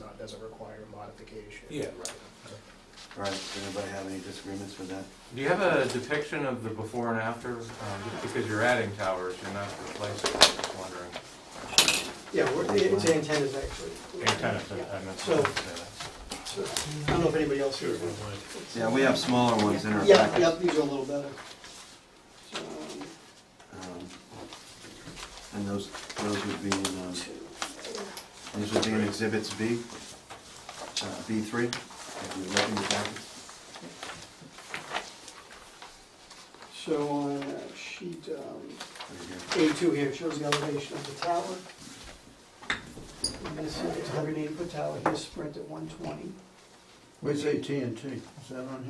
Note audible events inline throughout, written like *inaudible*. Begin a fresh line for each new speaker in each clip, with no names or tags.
lot doesn't require modification.
Yeah, right.
All right, does anybody have any disagreements with that?
Do you have a depiction of the before and after? Um, Just because you're adding towers, you're not replacing, I'm just wondering.
Yeah, we're- it's antennas actually.
Antennas, uh, I I meant to say
So, I don't know if anybody else here.
Yeah, we have smaller ones in our
Yeah,
package.
yeah, these are a little better. So, um,
Um, And those, those would be in, um,
two,
these would be in exhibits B, uh, B three, if you look in the package.
So on uh, sheet um,
There you go.
A2 here, it shows the elevation of the tower. And This is 180 foot tower, here's Sprint at 120.
Where's AT&T? Is that on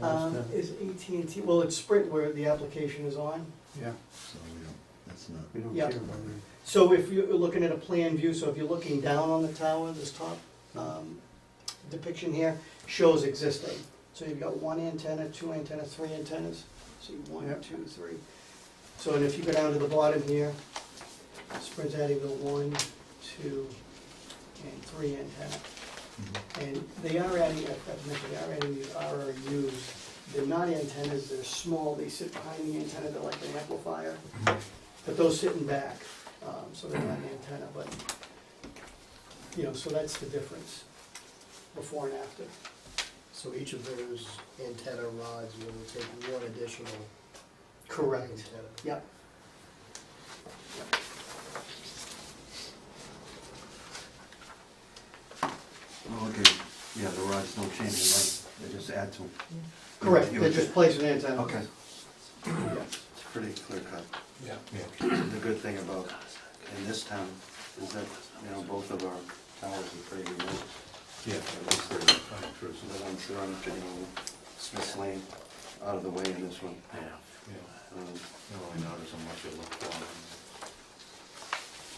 here?
Um, Is
Where's
AT&T, well, it's Sprint where the application is on.
the- Yeah,
So we don't, that's not,
we don't
Yeah.
care about it.
So if you're looking at a plan view, so if you're looking down on the tower, this top um, depiction here shows existing. So you've got one antenna, two antennas, three antennas, see one,
Yep.
two, three. So and if you go down to the bottom here, Sprint Abbeville, one, two, and three antenna.
Mm-hmm.
And they are adding, I forgot to mention, they are adding these RRUs. They're not antennas, they're small, they sit behind the antenna, they're like an amplifier. But those sitting back, um, so they're not an antenna, but, you know, so that's the difference, before and after.
So each of those antenna rods will take one additional antenna.
Correct. Yep.
oh, okay, yeah, the rods don't change in length, they just add to them.
Correct,
You
they
would-
just place an antenna.
Okay. It's pretty clear cut.
Yeah.
that.
The good thing about in this town is that, you know, both of our towers are pretty remote.
Yeah.
At least they're, the ones that aren't, you know, Smith Lane, out of the way in this one.
Yeah. You
Um,
don't really notice unless you look down.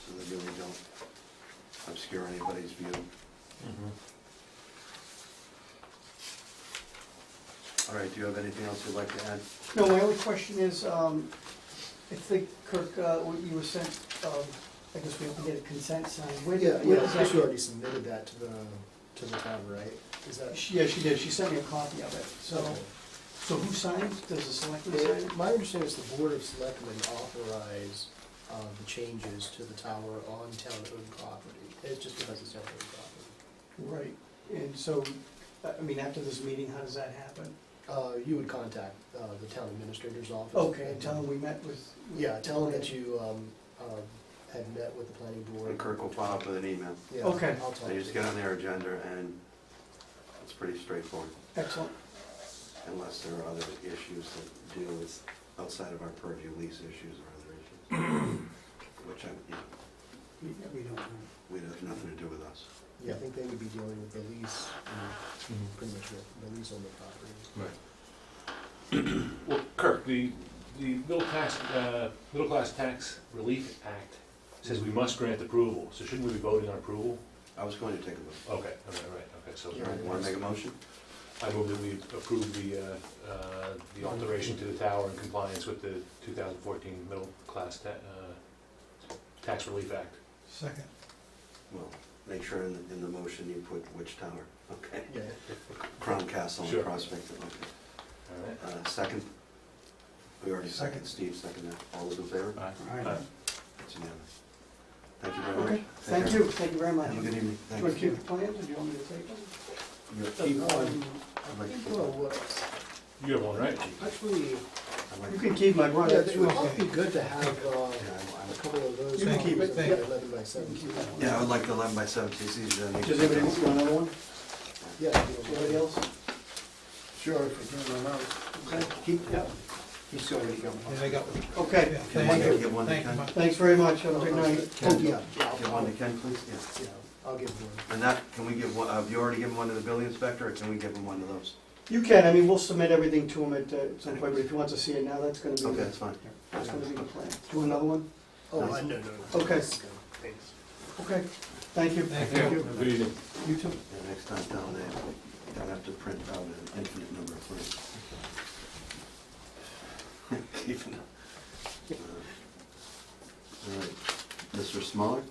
So they really don't obscure anybody's view. All right, do you have anything else you'd like to add?
No, my only question is, um, I think Kirk, uh, what you were sent, um, I guess we have to get a consent signed. Where
Yeah,
did, where
yeah,
does
I think you
that?
already submitted that to the, to the town, right? Is that?
She- Yeah, she did, she sent me a copy of it, so, so who signs, does the selectman sign?
My understanding is the Board of Selectmen authorize uh, the changes to the tower on town-owned property. It's just because it's town-owned property.
Right, and so, I I mean, after this meeting, how does that happen?
Uh, You would contact uh, the town administrator's office.
Okay, and tell them we met with.
Yeah, tell them that you um, um, had met with the planning board.
And Kirk will follow up with an email.
Yeah,
Okay.
I'll talk
They
to
just
you.
get on their agenda and it's pretty straightforward,
Excellent,
unless there are other issues that deal with outside of our purview, lease issues or other *clears throat* issues. Which I, you know,
we, we don't know.
we have nothing to do with us.
Yeah, I think they would be dealing with the lease, and pretty much the the lease on the property.
Right.
Well, Kirk, the, the middle class, uh, middle class tax relief act says we must grant approval, so shouldn't we be voting on approval?
I was going to take a look.
Okay, all right, right, okay, so
Yeah.
Want to make a motion?
I move that we approve the, uh, uh, the alteration to the tower in compliance with the two thousand fourteen middle class ta- uh, tax relief act.
Second.
Well, make sure in, in the motion you put which tower, okay?
Yeah,
Crown Castle
Sure.
and Prospect, okay.
All right.
Uh, second? We already seconded,
Second.
Steve seconded. All those in favor?
Aye.
All right.
It's unanimous. Thank you very much.
Okay,
Take
thank
care.
you, thank you very much.
Have a
Do
good
you
evening, thank
want to keep
you.
the plans, or do you want me to take them? Uh,
You'll keep one. I'd
I
like to
think
keep
well,
one.
what-
You have one, right?
Actually,
I'd like
You
to-
can keep my
yeah,
brother.
it would probably be good to have uh,
yeah,
a
I'm- I'm-
couple of those.
You can keep it,
copies of
thank
the
you.
Eleven by seventeen.
Yeah, I would like the eleven by seventeen, it's easier than.
Does anybody want another one?
Yeah.
Anybody else?
Sure, if you're doing it out.
Okay, Keep, yeah.
He's already got
Yeah, they got.
Okay,
Can
Thank
I
you.
get one to
Thank you,
Ken?
Mike.
thanks very much, have a good night.
Ken,
Yeah, yeah,
Get
I'll,
one to Ken, please, yes.
yeah, I'll give one.
And that, can we give one, uh, have you already given one to the building inspector, or can we give him one of those?
You can, I mean, we'll submit everything to him at uh, some point, but if he wants to see it now, that's gonna be,
Okay,
the-
that's fine.
that's gonna be the plan. Do you want another one?
Oh,
Nice.
I- no, no, no.
Okay.
Thanks.
Okay, thank you.
Thank you.
Good evening.
You too.
Yeah, next time down there, I'll have to print out an infinite number of *laughs* plans. Keeping up. Uh, All right, Mr. Smaller?